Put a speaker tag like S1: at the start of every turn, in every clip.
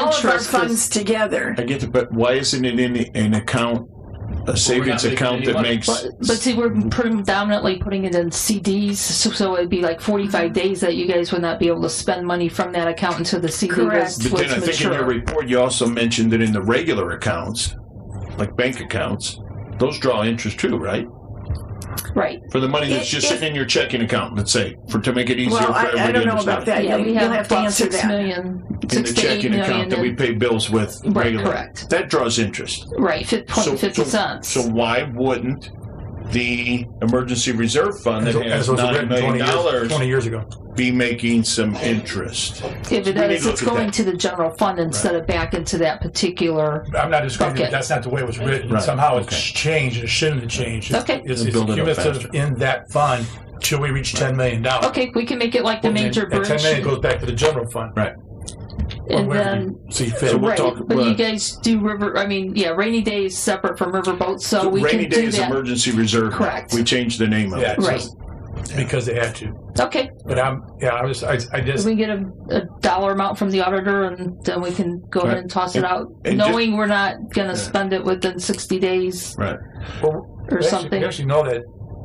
S1: of our
S2: trust
S1: funds together.
S3: I get it, but why isn't it in an account, a savings
S4: making
S3: account
S4: any
S3: that
S4: money.
S3: makes?
S2: But, but see, we're predominantly putting it in CDs, so, so it'd be like 45 days that you guys would not be able to spend money from that account until the CD
S1: Correct.
S2: was,
S3: But then
S2: was
S3: I think in
S2: mature.
S3: your report, you also mentioned that in the regular accounts, like bank accounts, those draw interest too, right?
S2: Right.
S3: For the money that's
S1: It-
S3: just
S1: it-
S3: sitting in your checking account, let's say, for, to make it easier
S1: Well,
S3: for
S1: I, I
S3: everybody to
S1: don't know about
S3: understand.
S1: that.
S2: Yeah,
S1: You'll-
S2: we
S1: You'll
S2: have
S1: have to
S2: about
S1: answer
S2: six
S1: that.
S2: million-
S3: In
S2: six
S3: the
S2: to eight
S3: checking
S2: million
S3: account that we
S2: in-
S3: pay bills with
S2: Right,
S3: regularly.
S2: correct.
S3: That draws interest.
S2: Right, fif-
S3: So-
S2: point fifty
S3: so-
S2: cents.
S3: So why wouldn't the emergency reserve fund that
S5: As,
S3: has
S5: as was
S3: nine
S5: written
S3: million
S5: 20
S3: dollars
S5: years, 20 years ago.
S3: be making some interest?
S2: If it
S3: we need
S2: is,
S3: to
S2: it's
S3: look at
S2: going
S3: that.
S2: to the general fund instead of back into that particular.
S5: I'm not disagreeing.
S2: Okay.
S5: That's not the way it was written.
S3: Right.
S5: Somehow it's
S3: Okay.
S5: changed. and It shouldn't have changed. It's-
S2: Okay.
S5: It's,
S3: And
S5: it's
S3: build it up
S5: cumulative
S3: faster.
S5: in that fund till we reach $10 million.
S2: Okay, we can make it like the major
S5: And
S2: bridge,
S5: 10 million goes back to the general fund.
S3: Right.
S5: Or
S2: and
S5: wherever
S2: then
S5: you see fit.
S3: So we'll
S2: right.
S3: talk-
S2: but
S3: well-
S2: you guys do river. I mean, yeah, rainy day is separate from riverboat, so we
S3: Rainy
S2: can
S3: day
S2: do
S3: is
S2: that.
S3: emergency reserve.
S2: Correct.
S3: We changed the name of
S5: Yeah,
S3: it.
S5: it's
S2: Right.
S5: just because they had to.
S2: Okay,
S5: But I'm, yeah, I was, I, I just,
S2: we get a, a dollar amount from the auditor, and then we can go ahead
S3: Right.
S2: and toss
S3: And-
S2: it out,
S3: and just-
S2: knowing we're not going to spend it within sixty days
S3: Right.
S5: well,
S2: or
S5: we actually-
S2: something.
S5: We actually know that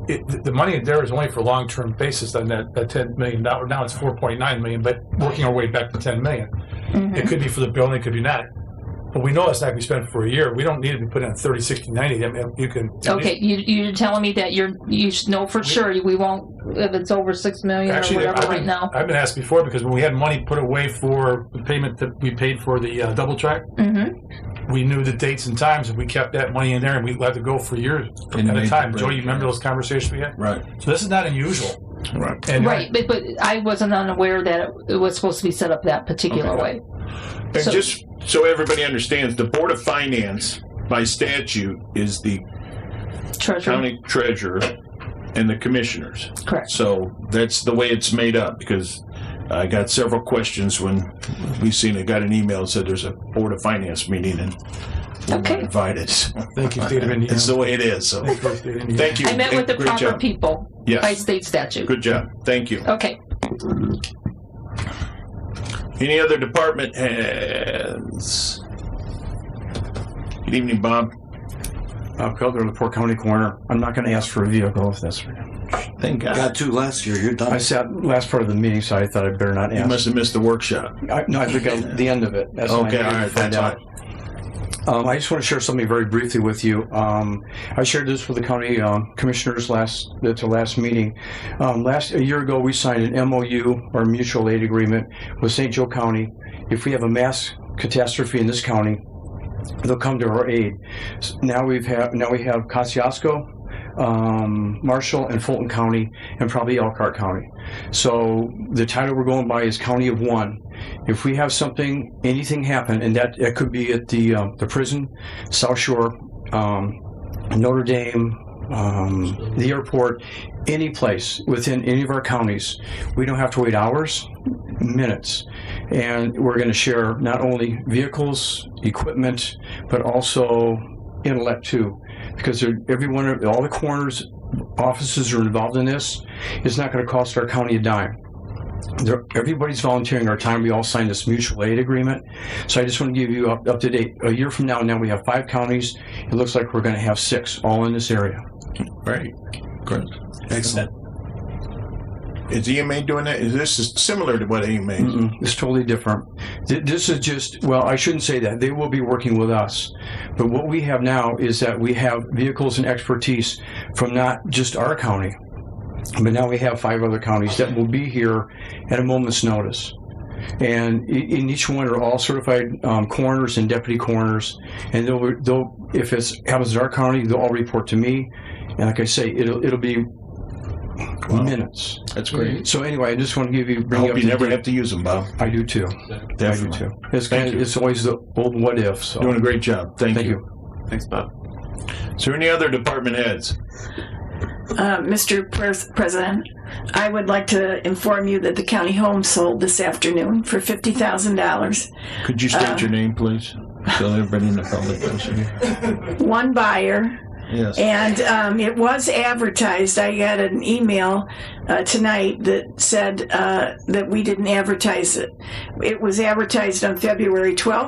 S5: it, the- the money there is only for long-term basis on that, that 10 million dollar. Now it's 4.9 million, but working our way back to 10 million.
S2: Mhm.
S5: It could be for the building, it could be not. But we know it's not going to be spent for a year. We don't need it to be put in 30, 60, 90. I mean, you can.
S2: Okay, you, you're telling me that you're, you should know for sure we won't, if it's over six million or
S5: Actually, I've
S2: whatever right
S5: been-
S2: now.
S5: I've been asked before because when we had money put away for the payment that we paid for the uh, double track,
S2: Mm-hmm,
S5: we knew the dates and times and we kept that money in there and we let it go for years
S3: And
S5: at
S3: made
S5: a
S3: the
S5: time.
S3: break.
S5: Jody, you remember those conversations we had?
S3: Right.
S5: So this is not unusual.
S3: Right.
S5: And
S2: right, but, but I wasn't unaware that it- it was supposed to be set up that particular
S3: Okay.
S2: way.
S3: And
S2: So-
S3: just so everybody understands, the Board of Finance by statute is the
S2: Treasurer,
S3: county treasurer and the commissioners.
S2: correct.
S3: So that's the way it's made up because I got several questions when we seen, I got an email that said there's a Board of Finance meeting and we're not
S2: Okay.
S3: invited. So
S5: Thank you, State of Indiana.
S3: It's the way it is. So
S5: Thank you, State of Indiana.
S3: thank you.
S2: I met with the
S3: Great
S2: proper
S3: job.
S2: people by
S3: Yes.
S2: state statute.
S3: Good job. Thank you.
S2: Okay,
S3: Any other department heads? Good evening, Bob.
S6: Bob Cutler, the Port County Corner. I'm not going to ask for a vehicle if that's.
S3: Thank God.
S7: Got two last year. You're
S6: I
S7: done.
S6: sat last part of the meeting, so I thought I would better not
S3: You must
S6: ask.
S3: have missed the workshop.
S6: I, no, I think I, the end of it. That's when I
S3: Okay,
S6: needed
S3: all
S6: to
S3: right,
S6: find
S3: that's
S6: out. Um, I just want to share something very briefly with you. Um, I shared this with the county um, commissioners last at the last meeting. Um, last a year ago, we signed an MOU or mutual aid agreement with St. Joe County. If we have a mass catastrophe in this county, they'll come to our aid. S- Now we've had now we have Kosciuszko, um, Marshall, and Fulton County, and probably Elkhart County. So the title we're going by is County of One. If we have something, anything happen, and that it could be at the um, the prison, South Shore, um, Notre Dame. Um, the airport, any place within any of our counties, we don't have to wait hours, minutes, and we're going to share not only vehicles, equipment, but also intellect too, because they're- every one of all the corners offices are involved in this. It's not going to cost our county a dime. There, everybody's volunteering our time. We all signed this mutual aid agreement. So I just want to give you up, up to date. A year from now, now we have five counties. It looks like we're going to have six, all in this area.
S3: Right.
S7: Excellent.
S3: Is EMA doing that? Is this is similar to what E EMA?
S6: Mm-mm, it's totally different. Th- This is just, well, I shouldn't say that. They will be working with us. But what we have now is that we have vehicles and expertise from not just our county, but now we have five other counties that will be here at a moment's notice. And i- in each one are all certified um, coroners and deputy coroners. And they'll, they'll, if it's happens in our county, they'll all report to me. And like I say, it'll, it'll be minutes.
S3: That's great.
S6: So anyway, I just want to give you,
S3: I
S6: bring up.
S3: hope you
S6: the
S3: never
S6: date.
S3: have to use them, Bob.
S6: I do too. I do
S3: Definitely.
S6: too. It's
S3: Thank
S6: kind of,
S3: you.
S6: it's always the old what if. So
S3: Doing a great job. Thank,
S6: thank
S3: you.
S6: you.
S7: Thanks, Bob.
S3: Is there any other department heads?
S1: Uh, Mr. Pres- President, I would like to inform you that the county home sold this afternoon for $50,000.
S3: Could you state
S1: Uh,
S3: your name, please? So everybody in the public knows you.
S1: One buyer,
S3: Yes.
S1: And um, it was advertised. I got an email uh, tonight that said uh, that we didn't advertise it. It was advertised on February 12th.